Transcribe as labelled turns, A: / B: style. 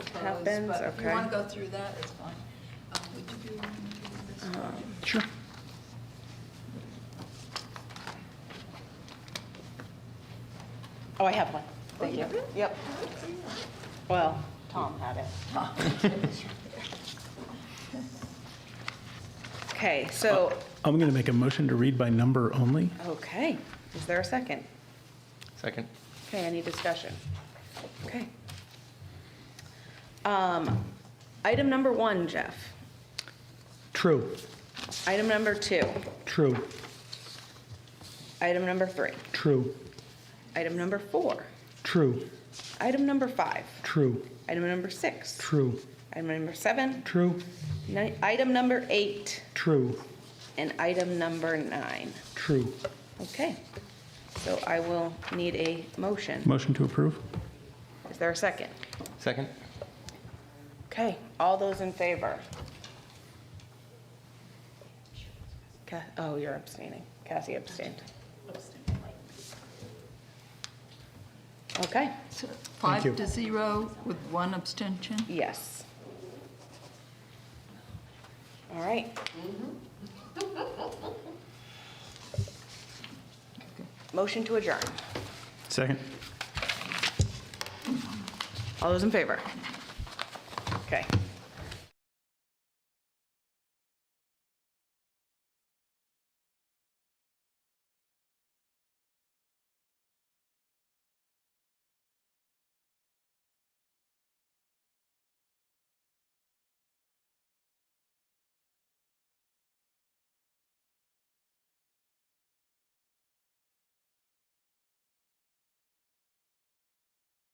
A: Happens,
B: But if you
A: okay.
B: want to go through that, it's fine. Um, Would you be willing to do this?
C: Sure.
D: Oh, I have one. Thank
B: you
D: you.
B: do?
D: Yep. Well, Tom had it.
A: Okay, so,
C: Uh, I'm going to make a motion to read by number only.
A: okay, is there a second?
E: Second.
A: Okay, any discussion? Okay. Um, Item number one, Jeff.
C: True,
A: Item number two.
C: true,
A: Item number three.
C: true,
A: Item number four.
C: true,
A: Item number five.
C: true,
A: Item number six.
C: true,
A: Item number seven.
C: true,
A: ni- Item number eight.
C: true,
A: And item number nine.
C: true.
A: Okay. So I will need a motion.
C: Motion to approve?
A: Is there a second?
E: Second.
A: Okay, all those in favor? Ca- Oh, you're abstaining. Cassie abstained. Okay,
B: So Five
C: you.
B: to zero with one abstention.
A: yes. All right. Motion to adjourn.
C: Second.
A: All those in favor? Okay.